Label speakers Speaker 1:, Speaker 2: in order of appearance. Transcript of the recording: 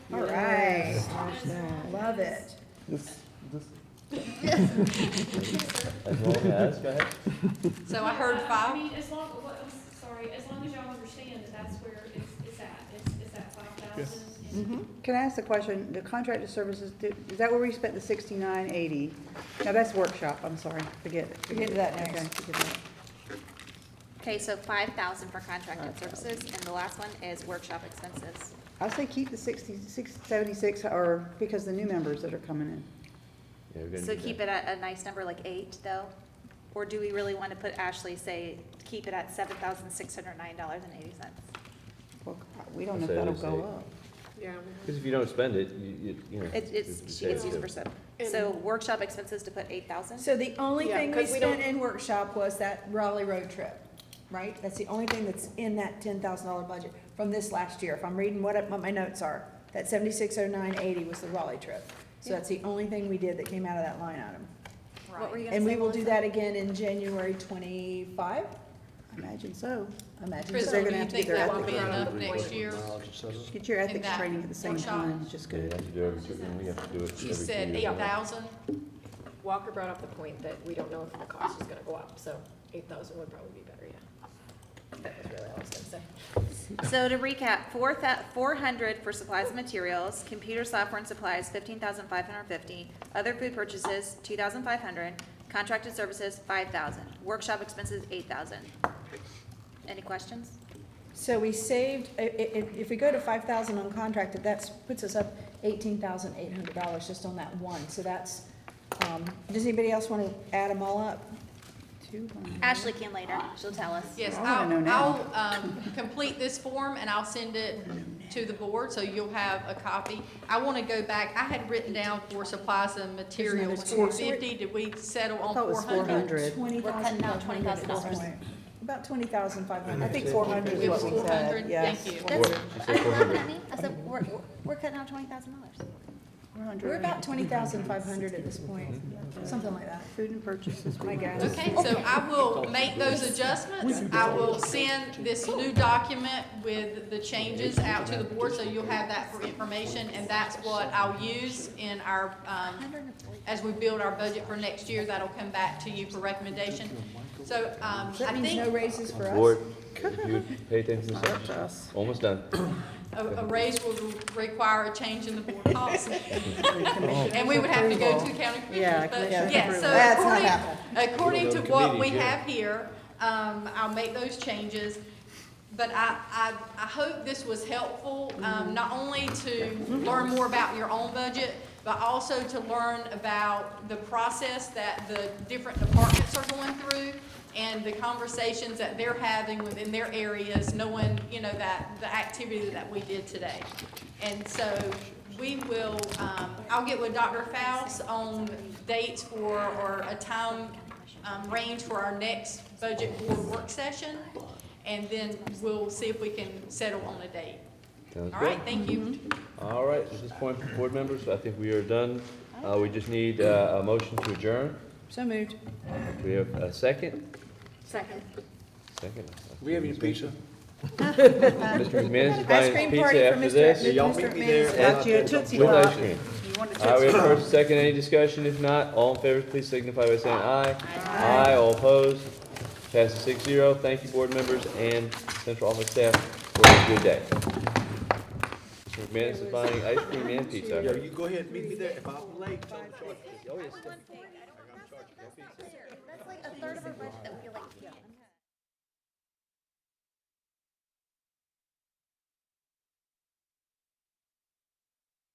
Speaker 1: All right,
Speaker 2: Smash that.
Speaker 1: love it.
Speaker 3: This, this,
Speaker 4: As well as, go ahead.
Speaker 5: So I heard
Speaker 6: I
Speaker 5: five,
Speaker 6: mean, as long, what, I'm sorry, as long as y'all understand that that's where it's, it's at, it's, it's at five thousand.
Speaker 2: Mhm.
Speaker 1: Mm-hmm. Can I ask the question, the contracted services, do- is that where we spent the sixty-nine eighty? No, that's workshop, I'm sorry, forget it.
Speaker 2: We'll get to that next.
Speaker 1: Okay, forget that.
Speaker 7: Okay, so five thousand for contracted services, and the last one is workshop expenses.
Speaker 1: I say keep the sixty, six, seventy-six, or, because the new members that are coming in.
Speaker 4: Yeah, we're gonna
Speaker 7: So
Speaker 4: do
Speaker 7: keep
Speaker 4: that.
Speaker 7: it at a nice number like eight, though? Or do we really want to put Ashley, say, keep it at seven thousand six hundred nine dollars and eighty cents?
Speaker 1: Well, we don't know if
Speaker 4: Say
Speaker 1: that'll
Speaker 4: it's
Speaker 1: go
Speaker 4: eight.
Speaker 1: up.
Speaker 8: Yeah,
Speaker 4: Cause if you don't spend it, you, you, you know.
Speaker 7: It, it's,
Speaker 4: just
Speaker 7: she gets
Speaker 4: save
Speaker 7: used
Speaker 4: it.
Speaker 7: for some. So workshop expenses to put eight thousand?
Speaker 2: So the only
Speaker 8: Yeah,
Speaker 2: thing we
Speaker 8: 'cause we don't-
Speaker 2: spent in workshop was that Raleigh road trip, right? That's the only thing that's in that ten thousand dollar budget from this last year, if I'm reading what, it- what my notes are. That seventy-six oh nine eighty was the Raleigh trip. So that's the only thing we did that came out of that line item.
Speaker 7: What were you gonna say?
Speaker 2: And we will
Speaker 7: Melissa?
Speaker 2: do that again in January twenty-five,
Speaker 1: I Imagine so.
Speaker 2: I imagine.
Speaker 1: Chris,
Speaker 2: so.
Speaker 1: they're gonna
Speaker 5: Crystal, do you
Speaker 1: have to
Speaker 5: think
Speaker 1: get their
Speaker 5: that will be
Speaker 1: ethics
Speaker 5: enough next year?
Speaker 1: Get your ethics
Speaker 5: that
Speaker 1: training at the same
Speaker 5: workshop.
Speaker 1: time, just
Speaker 4: Yeah, you
Speaker 1: good.
Speaker 4: have to do every two- you have to do it
Speaker 5: She
Speaker 4: every
Speaker 5: said
Speaker 4: two
Speaker 5: eight
Speaker 4: years.
Speaker 5: thousand,
Speaker 8: Walker brought up the point that we don't know if the cost is gonna go up, so eight thousand would probably be better, yeah. That was really all I was gonna say.
Speaker 7: So to recap, four thou- four hundred for supplies and materials, computer software and supplies, fifteen thousand five hundred fifty, other food purchases, two thousand five hundred, contracted services, five thousand, workshop expenses, eight thousand. Any questions?
Speaker 2: So we saved, i- i- if, if we go to five thousand uncontracted, that's, puts us up eighteen thousand eight hundred dollars just on that one, so that's, um, does anybody else wanna add them all up?
Speaker 1: Two, one.
Speaker 7: Mm-hmm. Ashley can later, she'll tell us.
Speaker 5: yes,
Speaker 1: I wanna know
Speaker 5: I'll,
Speaker 1: now.
Speaker 5: I'll, um, complete this form and I'll send it to the board, so you'll have a copy. I wanna go back, I had written down for supplies and materials,
Speaker 2: There's another
Speaker 5: four
Speaker 2: two.
Speaker 5: fifty, did we settle on
Speaker 1: thought it
Speaker 5: four
Speaker 1: was
Speaker 5: hundred?
Speaker 1: 400.
Speaker 2: Twenty
Speaker 7: We're cutting
Speaker 2: thousand
Speaker 7: out
Speaker 2: five hundred at this
Speaker 7: $20,500.
Speaker 2: point. About twenty thousand five hundred, I think
Speaker 4: It
Speaker 2: four hundred is
Speaker 5: It was
Speaker 2: what we
Speaker 5: four
Speaker 2: said,
Speaker 5: hundred,
Speaker 2: yeah.
Speaker 5: thank you.
Speaker 7: That's,
Speaker 4: What? She said
Speaker 7: I didn't laugh
Speaker 4: 400.
Speaker 7: at me, I said, we're, we're- we're cutting out twenty thousand dollars.
Speaker 1: We're under
Speaker 2: We're about twenty thousand five hundred at this point, something like that,
Speaker 1: Food and purchases.
Speaker 2: I guess.
Speaker 5: Okay, so I will make those adjustments. I will send this new document with the changes out to the board, so you'll have that for information. And that's what I'll use in our, um, as we build our budget for next year, that'll come back to you for recommendation. So, um,
Speaker 2: That
Speaker 5: I
Speaker 2: means no
Speaker 5: think
Speaker 2: raises for us.
Speaker 4: Board, if you would pay attention to
Speaker 1: Up to
Speaker 4: something,
Speaker 1: us.
Speaker 4: almost done.
Speaker 5: a, a raise will require a change in the board policy. And we would have to go to county
Speaker 1: Yeah,
Speaker 5: commissioners, but,
Speaker 1: commissioners
Speaker 5: yeah,
Speaker 1: approval.
Speaker 5: so
Speaker 2: That's not
Speaker 5: according-
Speaker 2: happening.
Speaker 5: According
Speaker 4: You'll
Speaker 5: to
Speaker 4: go to
Speaker 5: what we
Speaker 4: committee, yeah.
Speaker 5: have here, um, I'll make those changes. But I, I, I hope this was helpful, um, not only to learn more about your own budget, but also to learn about the process that the different departments are going through and the conversations that they're having within their areas, knowing, you know, that, the activity that we did today. And so we will, um, I'll get with Dr. Faust on dates for, or a time, um, range for our next budget board work session. And then we'll see if we can settle on a date.
Speaker 4: Sounds
Speaker 5: All
Speaker 4: good.
Speaker 5: right, thank you.
Speaker 4: All right, at this point, board members, I think we are done. Uh, we just need, uh, a motion to adjourn.
Speaker 2: So moved.
Speaker 4: We have a second,
Speaker 7: Second.
Speaker 4: second.
Speaker 9: We have any pizza?
Speaker 5: Uh,
Speaker 4: Mr. McManus is
Speaker 2: Ice
Speaker 4: buying his
Speaker 2: cream
Speaker 4: pizza
Speaker 2: party for
Speaker 4: after
Speaker 2: Mr.
Speaker 4: this.
Speaker 2: Mr. McManus.
Speaker 1: Got you a Tootsie
Speaker 4: With ice
Speaker 1: Pop.
Speaker 4: cream.
Speaker 1: You want a
Speaker 4: All right,
Speaker 1: Tootsie
Speaker 4: we have
Speaker 1: Pop?
Speaker 4: first, second, any discussion? If not, all in favor, please signify by saying aye. Aye. all opposed. Passes six zero. Thank you, board members and central office staff for a good day. Mr. McManus is buying ice cream and pizza. I
Speaker 9: Yo,
Speaker 4: heard.
Speaker 9: you go ahead, meet me there. If I'm late, don't charge me.
Speaker 7: That's like a third of our budget.